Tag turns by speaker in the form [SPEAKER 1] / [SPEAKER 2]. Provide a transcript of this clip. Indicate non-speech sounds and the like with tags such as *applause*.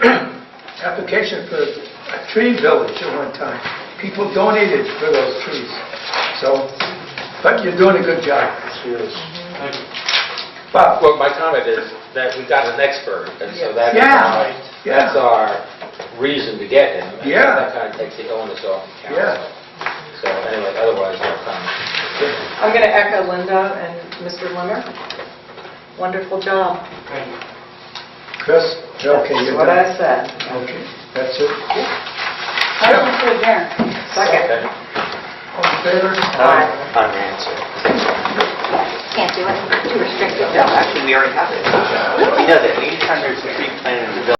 [SPEAKER 1] *coughs* application for a tree village at one time. People donated for those trees. So, but you're doing a good job. Bob?
[SPEAKER 2] Well, my comment is that we got an expert, and so that is
[SPEAKER 1] Yeah,
[SPEAKER 2] our, that's
[SPEAKER 1] yeah.
[SPEAKER 2] our reason to get him. and
[SPEAKER 1] Yeah.
[SPEAKER 2] That kind of takes the onus off the
[SPEAKER 1] Yeah.
[SPEAKER 2] council. So anyway, otherwise, no comment.
[SPEAKER 3] I'm going to echo Linda and Mr. Limmer. Wonderful job.
[SPEAKER 1] Chris? Okay,
[SPEAKER 3] That's
[SPEAKER 1] you're
[SPEAKER 3] What
[SPEAKER 1] done.
[SPEAKER 3] I said.
[SPEAKER 1] Okay, that's it.
[SPEAKER 4] Motion to adjourn.
[SPEAKER 3] Second.
[SPEAKER 2] Okay.
[SPEAKER 1] All in favor?
[SPEAKER 3] Aye.
[SPEAKER 5] unanswered.
[SPEAKER 4] Can't do it, too restrictive.
[SPEAKER 5] No, actually, we already have it. We already know that 800 tree planted in the village